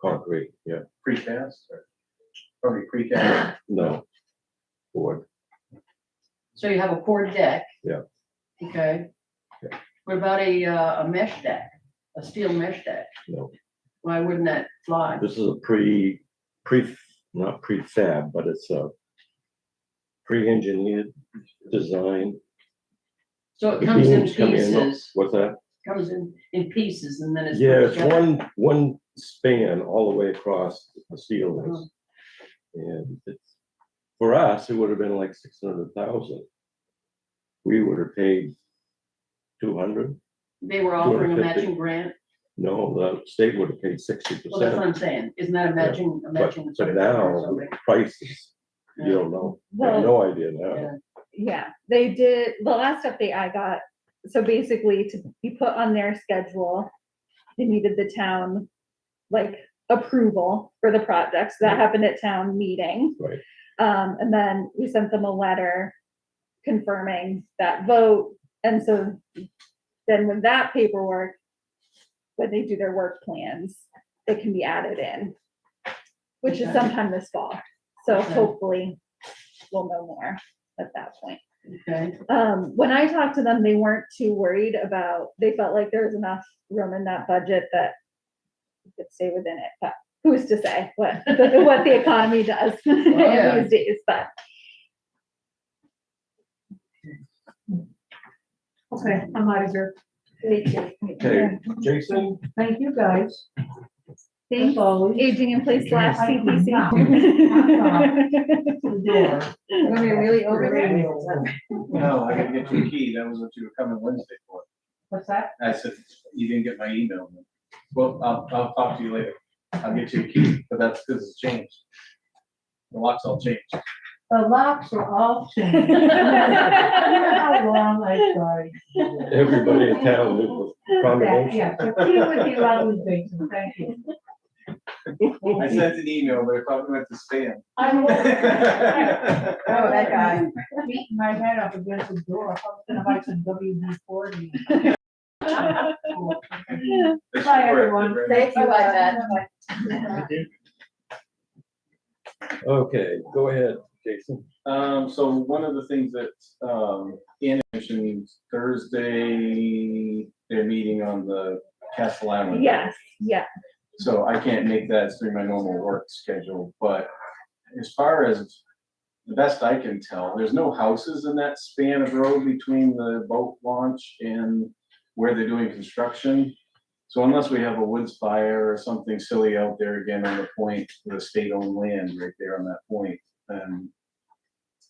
concrete, yeah, precast or probably precast. no. Board, So you have a core deck. Yeah. Okay. Yeah. What about a, uh, a mesh deck, a steel mesh deck? No. Why wouldn't that fly? this is a pre, pre, not prefab, but it's a pre-engineered design. So it comes in Beams come in, pieces, What's that? comes in, in pieces and then it's. put Yeah, it's together. one, one span all the way across the Uh-huh. ceilings. And it's, for us, it would have been like six hundred thousand. We would have paid two hundred, They were offering a 250. matching grant. no, the state would have paid sixty Well, that's percent. what I'm saying. Isn't that a matching, But, a matching? but grant or now, something? prices, you Yeah. don't know, I have Well, no idea now. Yeah. yeah, they did, the last update I got, so basically to be put on their schedule, they needed the town, like, approval for the projects. That Right. happened at town meeting. Right. Um, and then we sent them a letter confirming that vote. And so then with that paperwork, when they do their work plans, it can be added in, which is Okay. sometime this fall. So Okay. hopefully we'll know more at that point. Okay, Um, when I talked to them, they weren't too worried about, they felt like there was enough room in that budget that we could stay within it, but who's to say what, what the economy does yeah. these days, but. Okay, I'm out of here. Okay, Jason, Thank you, guys. Thanks, always. aging in place slash I am not- CPC. We're gonna be really over No, I gotta get you a key. That was what you were coming Wednesday for. What's that? I said, you didn't get my email. Well, I'll, I'll talk to you later. I'll get you a key, but that's because it's changed. The locks all changed. The locks are all changed. You know how long I tried. to do everybody in town knew the that. combination. Yeah, so deal with your ugly things, and thank you. I sent an email, but it probably went to spam. I will- I Oh, that guy. Beating my head up against the door, I was gonna buy some WD forty. mean, this is Bye, where it everyone. ran. Thank you, I bet. Okay, go ahead, Jason. Um, so one of the things that, um, Anna mentioned Thursday, they're meeting on the Castle Island. Yes, yeah. So I can't make that through my normal work schedule, but as far as the best I can tell, there's no houses in that span of road between the boat launch and where they're doing construction. So unless we have a woods fire or something silly out there again on the point, the state-owned land right there on that point, then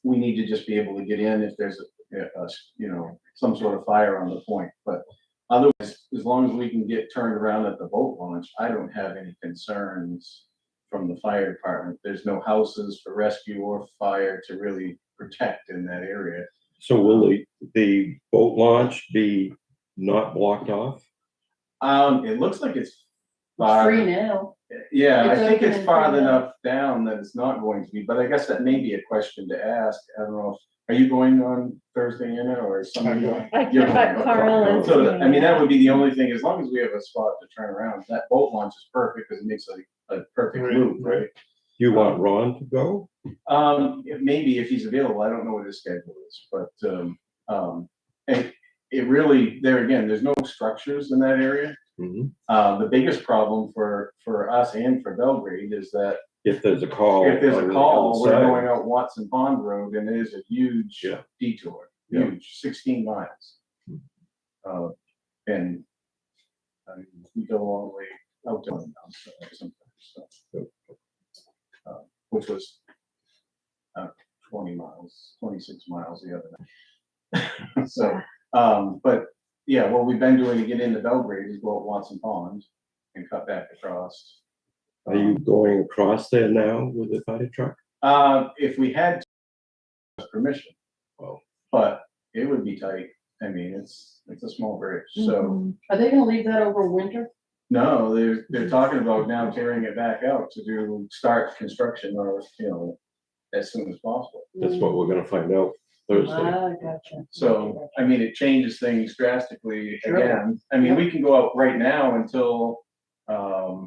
we need to just be able to get in if there's a, a- you know, some sort of fire on the point, but Otherwise, as long as we can get turned around at the boat launch, I don't have any concerns from the fire department. There's no houses for rescue or fire to really protect in that area. So will the, the boat launch be not blocked off? Um, it looks like it's It's free far, now. yeah, I It's think open it's and far free now. enough down that it's not going to be, but I guess that may be a question to ask. I don't know. if- Are you going on Thursday, Anna, or is somebody going? I You're can right, but Carl is. So, I mean, that doing would be the only thing, as long as we have a spot to turn around, that boat launch is perfect, because it makes a, a perfect loop, right? You want Ron to go? Um, it- maybe if he's available, I don't know what his schedule is, but, um, um, and it really, there again, there's no structures in that area. Mhm. Uh, the biggest problem for, for us and for Belgrade is that If there's a call. if there's on a the call, we're other side. going out Watson Pond Road, and it is a huge Yeah. detour, Yeah. huge, sixteen miles. Uh, and, I mean, we go all the way out to London sometimes, so. Uh, Which was, uh, twenty miles, twenty-six miles the other night. So, um, but, yeah, what we've been doing to get into Belgrade is go up Watson Pond and cut back across. Are you going across there now with the fire truck? Uh, if we had to, permission. Oh. But it would be tight. I mean, it's, it's a small bridge, it. so, Mhm. Are they gonna leave that over winter? no, they're, they're talking about now tearing it back out to do, start construction or, you know, as soon as possible. That's what we're gonna find out Thursday. Ah, gotcha. So, I mean, it changes things drastically Sure. again. I mean, we can go out right now until, um,